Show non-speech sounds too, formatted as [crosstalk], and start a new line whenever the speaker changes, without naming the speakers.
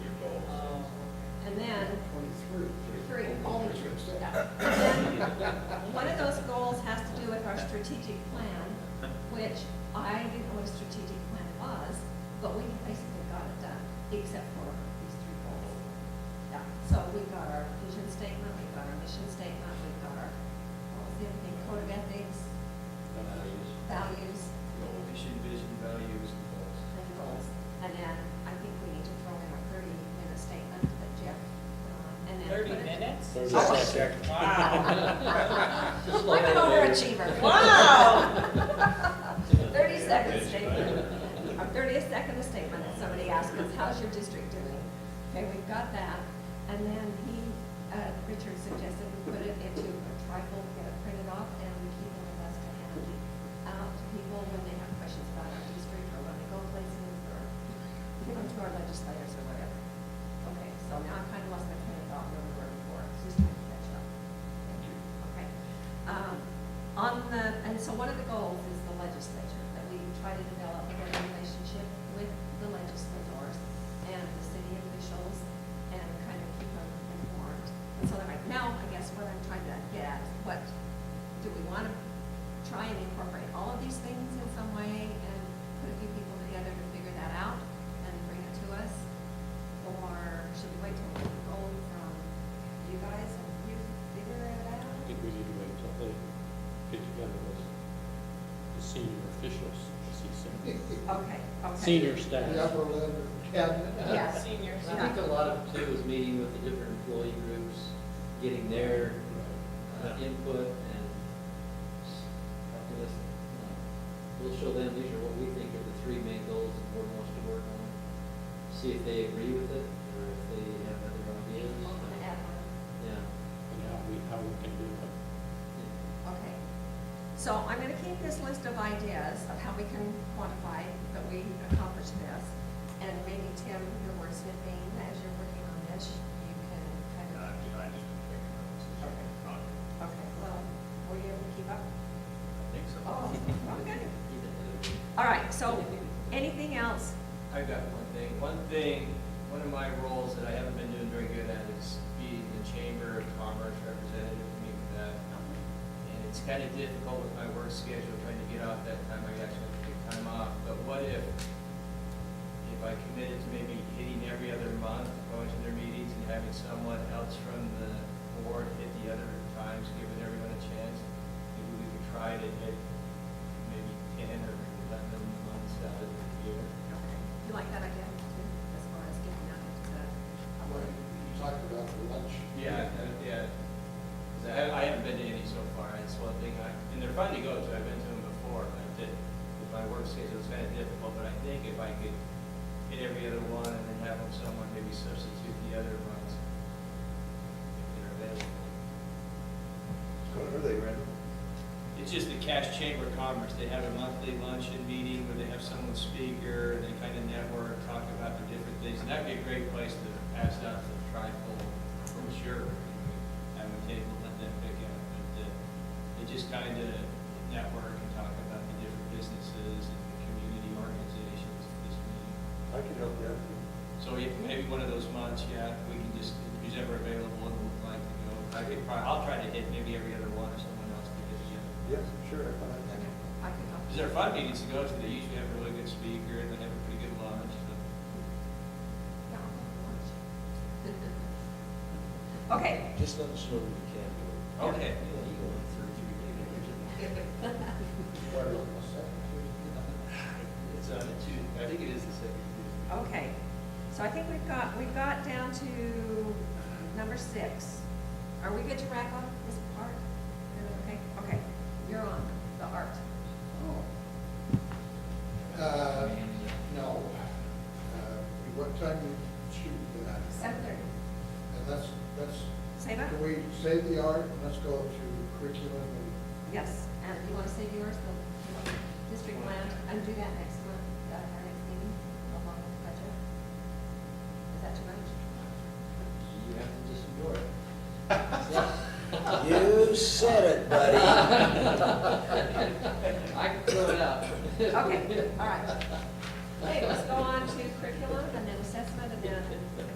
[coughs] strategic plan, which I didn't know what a strategic plan was, but we basically got it done, except for these three goals. Yeah, so we got our vision statement, we got our mission statement, we got our, what was the other thing, code of ethics,
Values.
values,
Goal, mission, vision, values, and goals.
and goals. And then I think we need to throw in our thirty-minute statement that Jeff, uh, and then.
Thirty
put it-
minutes?
Thirty
Oh.
seconds.
Wow.
I'm an overachiever.
Wow.
Thirty second statement, our thirtieth second statement, if somebody asks us, how's your district doing? Okay, we've got that, and then he, uh, Richard suggested we put it into a trifle, get it printed off, and we keep it with us to hand out to people when they have questions about our district, or when they go places, or give them to our legislators or whatever. Okay, so now I kind of lost my train of thought, where we were before, it's just trying to catch up. Thank you. Okay. Um, On the, and so one of the goals is the legislature, that we try to develop a good relationship with the legislators and the city officials and kind of keep them informed. And so like now, I guess what I'm trying to get at is what, do we want to try and incorporate all of these things in some way and put a few people together to figure that out and bring it to us? Or should we wait till we get the goal from you guys and you figure it out?
I think we need to wait till they get together with the senior officials, as he said.
Okay, okay.
Senior
The
staff.
upper level cabinet.
Yes.
Seniors.
I think a lot of it too is meeting with the different employee groups, getting their uh, input and helping us, you know, uh, we'll show them, these are what we think are the three main goals the board wants to work on. See if they agree with it or if they have other ideas. Yeah.
And how we, how we can do it.
Okay. So I'm gonna keep this list of ideas of how we can quantify that we accomplished this. And maybe Tim, your wordsmithing, as you're working on this, you can
I
kind of,
I just been taking notes, it's just not, I
okay, well, were you able to keep up?
think so.
Oh, okay.
Yeah.
All right, so anything else?
I've got one thing. One thing, one of my roles that I haven't been doing very good at is being the Chamber of Commerce representative, meet with that. And it's kind of difficult with my work schedule, trying to get off that time, I actually have to take time off. But what if, if I committed to maybe hitting every other month, going to their meetings and having someone else from the board hit the other times, giving everyone a chance? Maybe we could try to hit maybe ten or eleven months out of the year.
Okay. You like that idea too, as far as getting out into,
When you talk about the lunch.
Yeah, I- yeah. 'Cause I, I haven't been to any so far, it's one thing I, and they're fun to go to, I've been to them before, but I did, with my work schedule, it's kind of difficult, but I think if I could hit every other one and then have them someone maybe substitute the other ones, if they're available.
What are they, Randall?
It's just the Cash Chamber of Commerce, they have a monthly luncheon meeting where they have someone speaker, and they kind of network, talk about the different things, and that'd be a great place to pass out the trifold brochure, have a table, let them pick out, but, uh, they just kind of network and talk about the different businesses and the community organizations at this meeting.
I can help you out.
So if, maybe one of those months, yeah, we can just, who's ever available and would like to go, I could probably, I'll try to hit maybe every other one or someone else to hit the other.
Yes, sure, I can.
I could help.
Because they're fun meetings to go to, they usually have a really good speaker, and they have a pretty good lunch, so.
Yeah, I'll have lunch. [laughs] Okay,
Just let us know when you can do it.
Okay.
You know, you go on through three days.
What, on the second
It's on a Tuesday, I think it is the second Tuesday.
Okay, so I think we've got, we've got down to uh, number six. Are we good to wrap up this part? Okay, okay, you're on, the art.
Tuesday? Uh, no. Uh, What time do you shoot that?
Seven thirty,
And that's, that's,
say that?
can we save the art and let's go to curriculum and
Yes, and you wanna save yours, the you want the district plan, and do that next month, uh, our next meeting, along with the budget? Is that too much?
You have to just ignore it.
[laughs] You said it,
[laughs] I can throw it out.
Okay, all right. Okay, let's go on to curriculum, and then assessment, and then